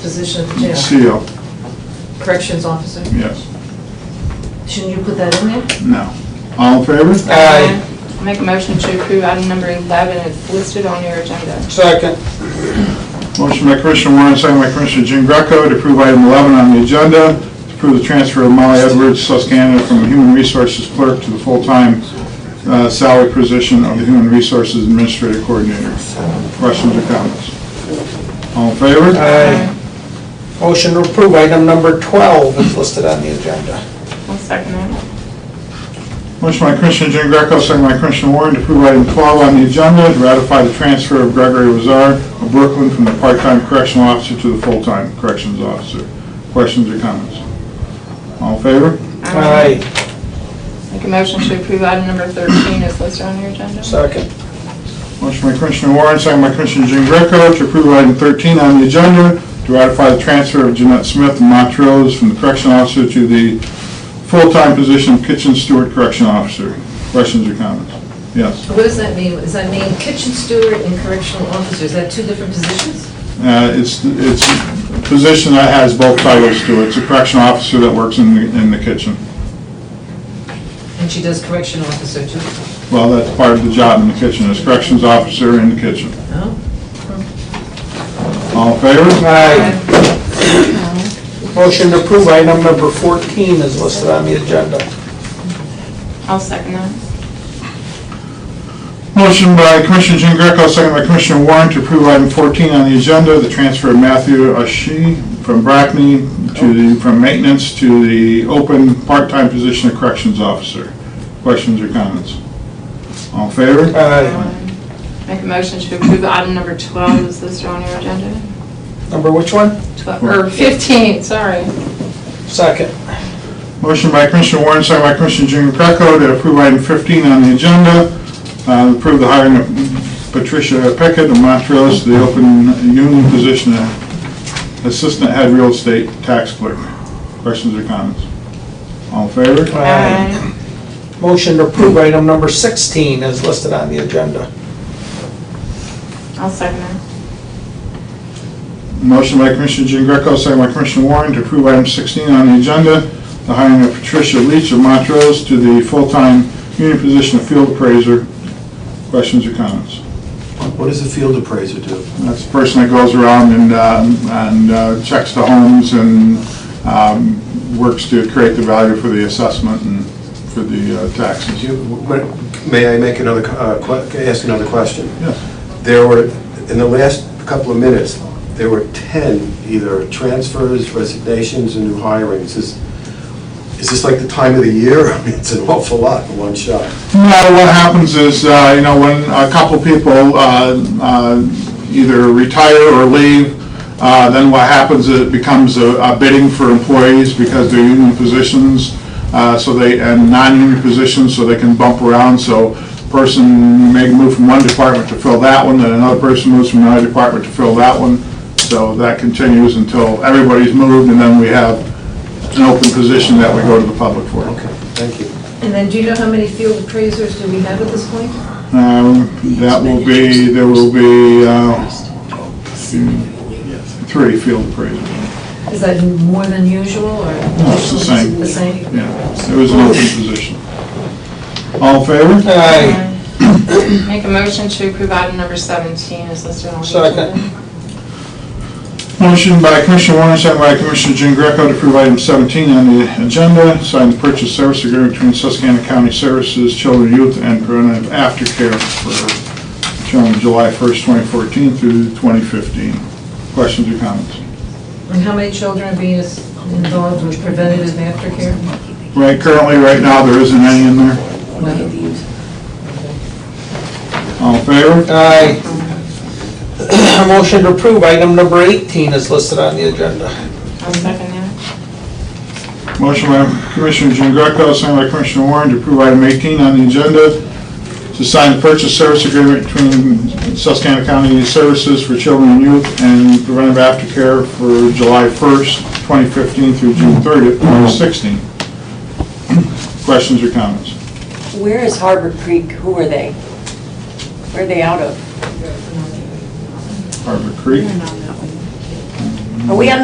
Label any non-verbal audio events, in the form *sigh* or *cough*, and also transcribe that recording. position at the jail, Seal, corrections officer. yes. Shouldn't you put that in there? No. All in favor? Aye. I Make a motion to approve item number 11, it's listed on your agenda. Second. Motion by Commissioner Warren, second by Commissioner Jean Greco to approve item 11 on the agenda, to approve the transfer of Molly Edwards, Susquehanna, from Human Resources Clerk to the full-time uh, salary position of the Human Resources Administrative Coordinator. Questions or comments? All in favor? Aye. Motion to approve item number 12 is listed on the agenda. I'll second that. Motion by Commissioner Jean Greco, second by Commissioner Warren to approve item 12 on the agenda, to ratify the transfer of Gregory Wazar of Brooklyn from the part-time correctional officer to the full-time corrections officer. Questions or comments? All in favor? Aye. Make a motion to approve item number 13, it's listed on your agenda. Second. Motion by Commissioner Warren, second by Commissioner Jean Greco to approve item 13 on the agenda, to ratify the transfer of Jeanette Smith of Montrose from the correction officer to the full-time position of kitchen steward correction officer. Questions or comments? Yes. What does that mean? Does that mean kitchen steward and correctional officer? Is that two different positions? Uh, It's, it's a position that has both titles to it. It's a correctional officer that works in the, in the kitchen. And she does correction officer too? Well, that's part of the job in the kitchen, is corrections officer in the kitchen. No? All in favor? Aye. Motion to approve item number 14 is listed on the agenda. I'll second that. Motion by Commissioner Jean Greco, second by Commissioner Warren to approve item 14 on the agenda, the transfer of Matthew Ashi from Brackney to the, from maintenance to the open part-time position of corrections officer. Questions or comments? All in favor? Aye. Um, Make a motion to approve item number 12, it's listed on your agenda. Number which one? 12, or 15, sorry. Second. Motion by Commissioner Warren, second by Commissioner Jean Greco to approve item 15 on the agenda, uh, approve the hiring of Patricia Pickett of Montrose to the open union position of Assistant Head Real Estate Tax Clerk. Questions or comments? All in favor? Aye. Motion to approve item number 16 is listed on the agenda. I'll second that. Motion by Commissioner Jean Greco, second by Commissioner Warren to approve item 16 on the agenda, the hiring of Patricia Leach of Montrose to the full-time union position of Field Appraiser. Questions or comments? What does the field appraiser do? That's the person that goes around and, um, and uh, checks the homes and um, works to create the value for the assessment and for the uh, Do taxes. you- what- May I make another, co- uh, que- ask another question? Yes. There were, in the last couple of minutes, there were 10 either transfers, resignations, and new hirings. Is is this like the time of the year? *laughs* I mean, It's an awful lot in one shot. No, what happens is, uh, you know, when a couple people uh, uh, either retire or leave, uh, then what happens is it becomes a a bidding for employees because they're union positions, uh, so they, and non-union positions, so they can bump around. So person may move from one department to fill that one, then another person moves from another department to fill that one. So that continues until everybody's moved, and then we have an open position that we go to the public for. Okay, thank you. And then do you know how many field appraisers do we have at this point? Um, That will be, there will be uh, three field appraisals. Is that more than usual or? No, it's the same. The same? Yeah, it was an open position. All in favor? Aye. Make a motion to approve item number 17, it's listed on your Second. agenda. Motion by Commissioner Warren, second by Commissioner Jean Greco to approve item 17 on the agenda, sign the purchase service agreement between Susquehanna County Services, Children, Youth, and Preventive Aftercare for term of July 1st, 2014 through 2015. Questions or comments? And how many children are being involved with preventative aftercare? Right, currently, right now, there isn't any in there. All in favor? Aye. *clears throat* Motion to approve item number 18 is listed on the agenda. I'll second that. Motion by Commissioner Jean Greco, signed by Commissioner Warren to approve item 18 on the agenda to sign the purchase service agreement between Susquehanna County Services for Children and Youth and Preventive Aftercare for July 1st, 2015 through June 30th, 2016. Questions or comments? Where is Harbor Creek? Who are they? Where are they out of? Harbor Creek? Are we on